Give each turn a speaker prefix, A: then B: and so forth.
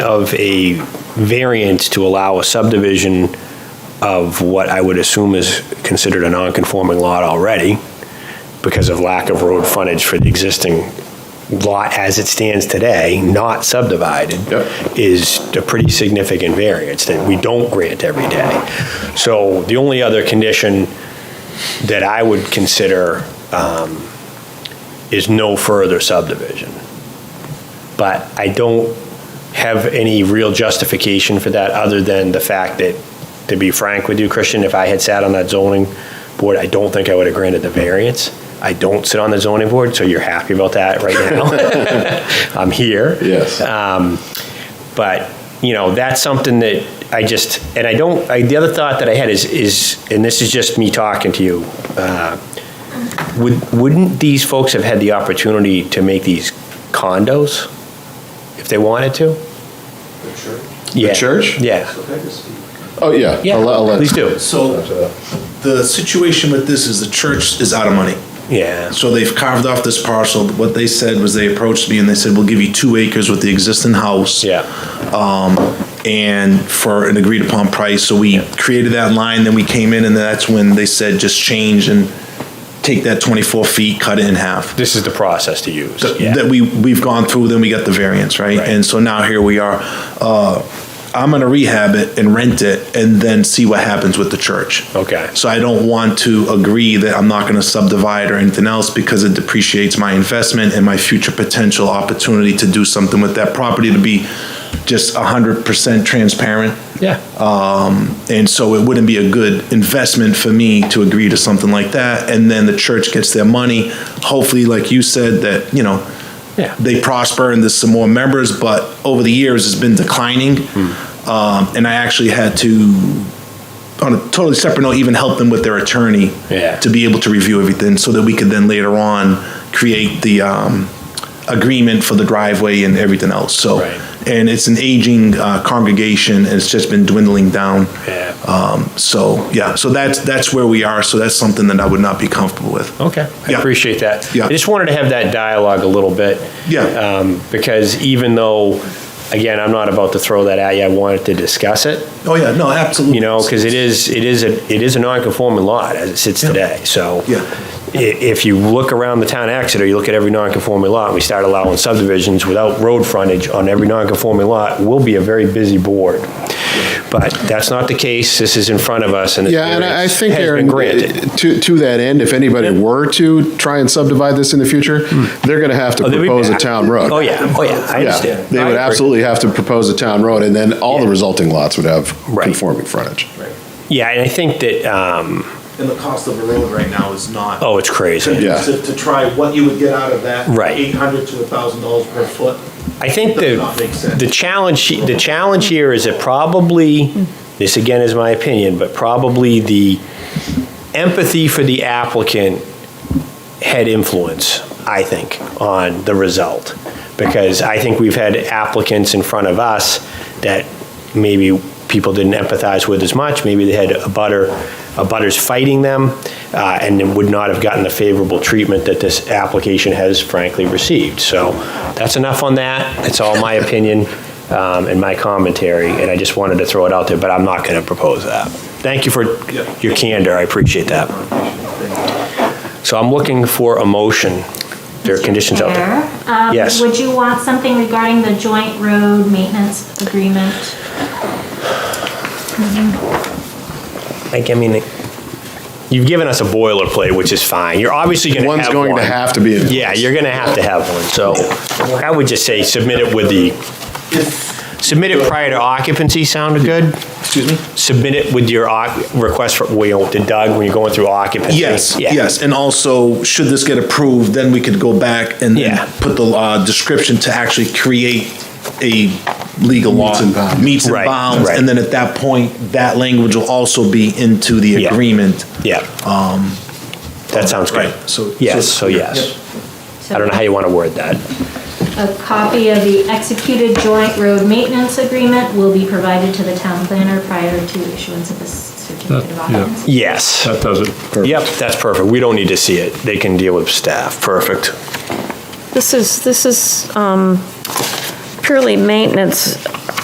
A: of a variance to allow a subdivision of what I would assume is considered a non-conforming lot already, because of lack of road frontage for the existing lot as it stands today, not subdivided,
B: Yep.
A: is a pretty significant variance that we don't grant every day. So the only other condition that I would consider um, is no further subdivision. But I don't have any real justification for that, other than the fact that, to be frank with you, Christian, if I had sat on that zoning board, I don't think I would have granted the variance. I don't sit on the zoning board, so you're happy about that right now. I'm here.
B: Yes.
A: Um, But, you know, that's something that I just, and I don't, I, the other thought that I had is, is, and this is just me talking to you, uh, would, wouldn't these folks have had the opportunity to make these condos if they wanted to? Yeah.
B: church?
A: Yeah.
B: Oh, yeah.
A: Yeah,
B: I'll let- I'll let-
A: please do.
C: So the situation with this is the church is out of money.
A: Yeah.
C: So they've carved off this parcel. What they said was they approached me and they said, we'll give you two acres with the existing house.
A: Yeah.
C: Um, and for an agreed upon price. So we created that line, then we came in and that's when they said, just change and take that 24 feet, cut it in half.
A: This is the process to use.
C: Th-
A: Yeah.
C: That we, we've gone through, then we got the variance, right?
A: Right.
C: And so now here we are. Uh, I'm gonna rehab it and rent it and then see what happens with the church.
A: Okay.
C: So I don't want to agree that I'm not gonna subdivide or anything else because it depreciates my investment and my future potential opportunity to do something with that property to be just hundred percent transparent.
A: Yeah.
C: Um, and so it wouldn't be a good investment for me to agree to something like that. And then the church gets their money. Hopefully, like you said, that, you know,
A: Yeah.
C: they prosper and there's some more members, but over the years, it's been declining.
A: Hmm.
C: Um, and I actually had to, on a totally separate note, even help them with their attorney
A: Yeah.
C: to be able to review everything so that we could then later on create the um, agreement for the driveway and everything else. So,
A: Right.
C: and it's an aging uh, congregation, and it's just been dwindling down.
A: Yeah.
C: Um, so yeah, so that's that's where we are. So that's something that I would not be comfortable with.
A: Okay, I
C: Yeah.
A: appreciate that.
C: Yeah.
A: I just wanted to have that dialogue a little bit.
C: Yeah.
A: Um, Because even though, again, I'm not about to throw that at you, I wanted to discuss it,
C: Oh yeah, no, absolutely.
A: you know, because it is, it is, a it is a non-conforming lot as it sits today, so.
C: Yeah.
A: i- If you look around the town of Exeter, you look at every non-conforming lot, and we start allowing subdivisions without road frontage on every non-conforming lot, we'll be a very busy board. But that's not the case, this is in front of us, and. the
B: Yeah, and I I
A: variance
B: think,
A: has been
B: Aaron,
A: granted.
B: to, to that end, if anybody were to try and subdivide this in the future, they're going to have to
A: Oh, they'll be
B: propose a
A: back.
B: town road.
A: Oh, yeah, oh, yeah, I
B: Yeah,
A: understand.
B: They
A: I
B: would
A: agree.
B: absolutely have to propose a town road, and then all the
A: Yeah.
B: resulting lots would have
A: Right.
B: conforming frontage.
A: Yeah, and I think that, um,
C: And the cost of a road right now is not.
A: oh, it's crazy.
B: Yeah.
C: To, to try what you would get out of that.
A: Right.
C: Eight hundred to a thousand dollars per foot.
A: I think
C: Does not make
A: the,
C: sense.
A: the challenge, the challenge here is that probably, this again is my opinion, but probably the empathy for the applicant had influence, I think, on the result. Because I think we've had applicants in front of us that maybe people didn't empathize with as much, maybe they had a butter, a butters fighting them, uh, and then would not have gotten the favorable treatment that this application has frankly received. So that's enough on that, it's all my opinion um, and my commentary, and I just wanted to throw it out there, but I'm not going to propose that. Thank you for your candor, I appreciate that. So I'm looking for a motion. There are conditions out there.
D: Um,
A: Yes.
D: Would you want something regarding the joint road maintenance agreement?
A: Like, I mean, you've given us a boilerplate, which is fine. You're obviously going to have
B: One's going to
A: one.
B: have to be. in-
A: Yeah, you're going to have to have one, so I would just say submit it with the, submit it prior to occupancy sounded good?
C: Excuse me?
A: Submit it with your oc- request for, you know, to Doug when you're going through occupancy?
C: Yes,
A: Yeah.
C: yes, and also, should this get approved, then we could go back and then
A: Yeah.
C: put the uh, description to actually create a legal law.
B: Meets and bounds.
C: Meets and
A: Right,
C: bounds,
A: right.
C: and then at that point, that language will also be into the
A: Yeah.
C: agreement.
A: Yeah. That sounds great.
C: Um, Right, so-
A: Yes,
C: so-
A: so yes. I don't know how you want to word that.
D: A copy of the executed joint road maintenance agreement will be provided to the town planner prior to issuance of this certificate of
E: That- yeah.
D: occupancy.
A: Yes.
E: That does it.
A: Yep, that's perfect. We don't need to see it. They can deal with staff. Perfect.
F: This is, this is um, purely maintenance